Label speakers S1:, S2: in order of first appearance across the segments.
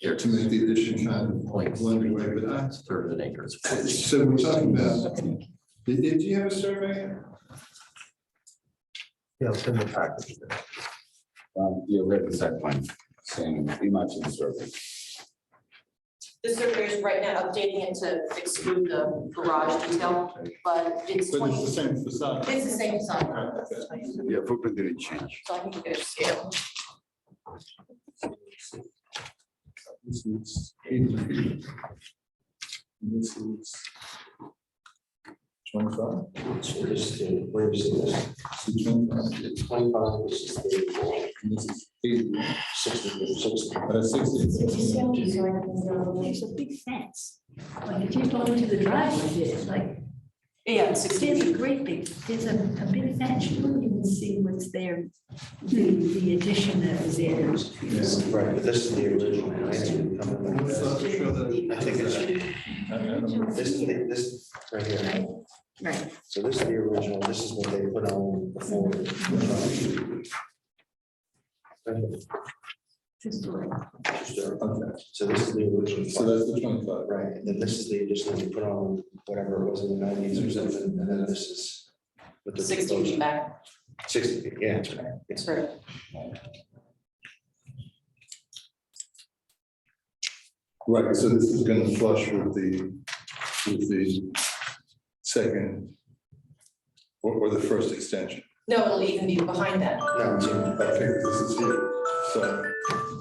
S1: Here
S2: to make the addition kind of
S1: Point
S2: blended way, but I,
S1: It's a Third of an acre. It's
S2: so we're talking about, did, did you have a survey?
S3: Yeah, it's in the package.
S4: Um, yeah, we have the site plan, same, pretty much in the survey.
S5: The surveyor is right now updating it to exclude the garage detail, but it's
S2: But it's the
S5: twenty,
S2: same facade.
S5: it's the same sign.
S4: Yeah, footprint didn't change.
S5: So I think you could scale.
S2: This is eighty feet. And This is twenty-five.
S3: Where's the, where's the,
S2: So 25,
S3: it's twenty-five, this is thirty-four,
S2: and this is eighty,
S3: sixty, sixty.
S2: uh, sixty.
S6: There's a big fence. Like if you go into the driveway, it's like,
S5: Yeah, sixteen
S6: there's a
S5: feet.
S6: great big, there's a, a big fence. You wouldn't even see what's there. The, the addition that was there.
S2: Yeah.
S3: Right, but this is the original. plan.
S2: Let's not show that-
S3: I think it's,
S2: I mean, I don't know.
S3: this, is the- this, right here.
S6: Right.
S3: So this is the original, this is what they put on before.
S6: Just like-
S2: Okay,
S3: So this is the original.
S2: so that's the twenty-five.
S3: Right, and then this is the addition that we put on whatever it was in the nineties or something, and then this is. what the
S5: sixteen feet back,
S3: Sixty, yeah, that's right. Yes.
S5: sorry.
S2: Right, so this is gonna flush with the, with the second or, or the first extension.
S5: No, it'll even be behind that.
S3: No, it's in-
S2: Okay, this is here, so.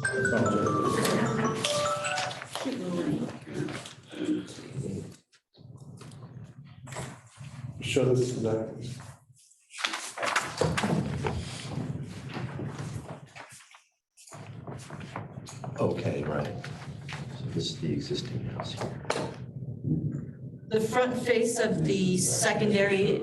S2: I apologize. Show this to that.
S1: Okay, right. So this is the existing house here.
S5: The front face of the secondary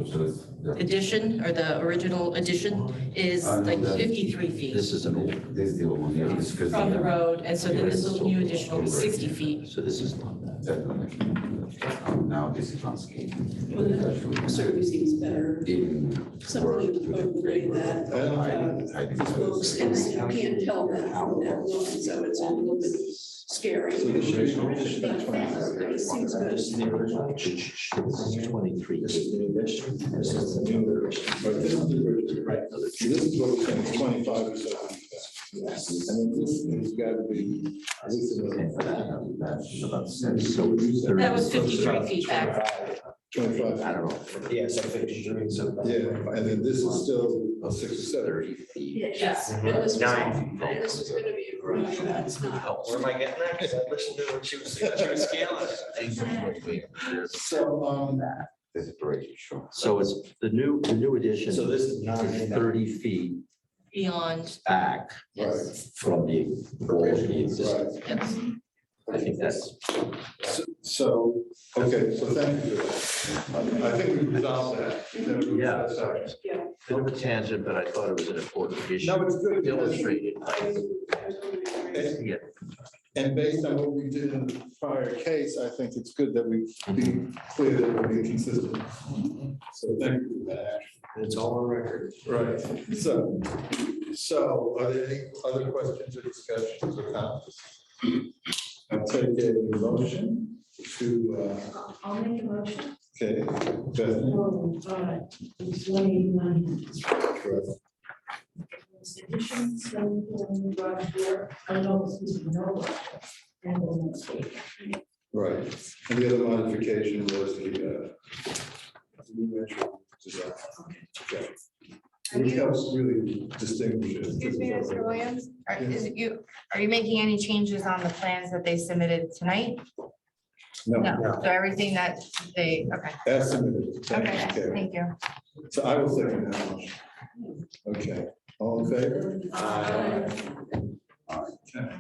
S5: addition or the original addition is like fifty-three feet
S1: This is an old,
S4: This is the old one, yeah, this is.
S5: from the road, and so then this little new addition will be sixty feet.
S1: so this is not that.
S4: Now this is landscape.
S7: Certainly seems better,
S4: Even.
S7: something of the way that
S4: I- I think so.
S7: looks, and you can't tell that from that look, so it's a little bit scary.
S2: So this should be- this should be
S7: But It seems better.
S3: This is the original. This is twenty-three. This is the new addition. This is the new addition.
S2: Right, this is the original. So This is what we're saying, twenty-five or so. Yes. And then this has got to be. this is another
S4: um, That's about
S1: So it's
S5: That was fifty-three feet back.
S4: I
S2: Twenty-five,
S4: don't know.
S3: Yeah, so fifty-three, so.
S2: yeah, and then this is still six or seven.
S4: Thirty feet.
S6: Yes.
S7: And this was-
S3: Nine.
S7: and This is gonna be a garage, and that's not.
S3: Where am I getting that? Because I listened to what she was, she was scaling.
S4: There's
S2: So, um,
S4: there's a break, sure.
S1: So it's the new, the new addition.
S3: So this is not
S1: is
S3: in that.
S1: Thirty feet
S5: Beyond,
S1: back
S2: right,
S1: from the originally existing.
S2: right.
S5: yes.
S1: I think that's,
S2: So- So, okay, so thank you. for that. I think we resolved that.
S1: Yeah.
S2: Sorry.
S1: bit of a tangent, but I thought it was an important
S2: No,
S1: issue
S2: it's good.
S1: illustrated.
S2: And-
S1: Yeah.
S2: And based on what we did in the prior case, I think it's good that we be clear that we're being consistent. So thank you for that.
S3: It's all on record.
S2: Right, so, so are there any other questions or discussions or comments? I'll take a motion to,
S6: I'll make a motion.
S2: uh, okay, Bethany,
S6: Oh, all right. It's one eighty-nine.
S2: correct.
S6: Addition, some, um, garage door. I know this is no. And on the state.
S2: right, and the other modification was the, uh, dimension design. Okay. Which helps really distinguish it.
S8: Excuse me, Mr. Williams, are, is it you, are you making any changes on the plans that they submitted tonight?
S2: No,
S8: No, so everything that they, okay,
S2: that's submitted. Thank you,
S8: okay,
S2: Karen.
S8: thank you.
S2: So I will second that motion. Okay, all in favor?
S5: Uh,
S2: Okay.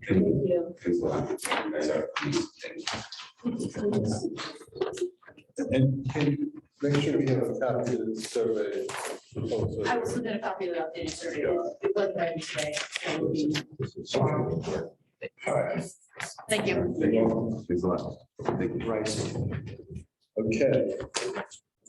S4: Because, uh, that's our-
S2: And can you make sure we have a copy of the survey? proposal?
S5: I will submit a copy of the updated survey. It was ready today. so it will be-
S2: All right.
S5: Thank you.
S2: Thank you.
S4: Thanks a lot. Thank you.
S3: Right.
S2: Okay.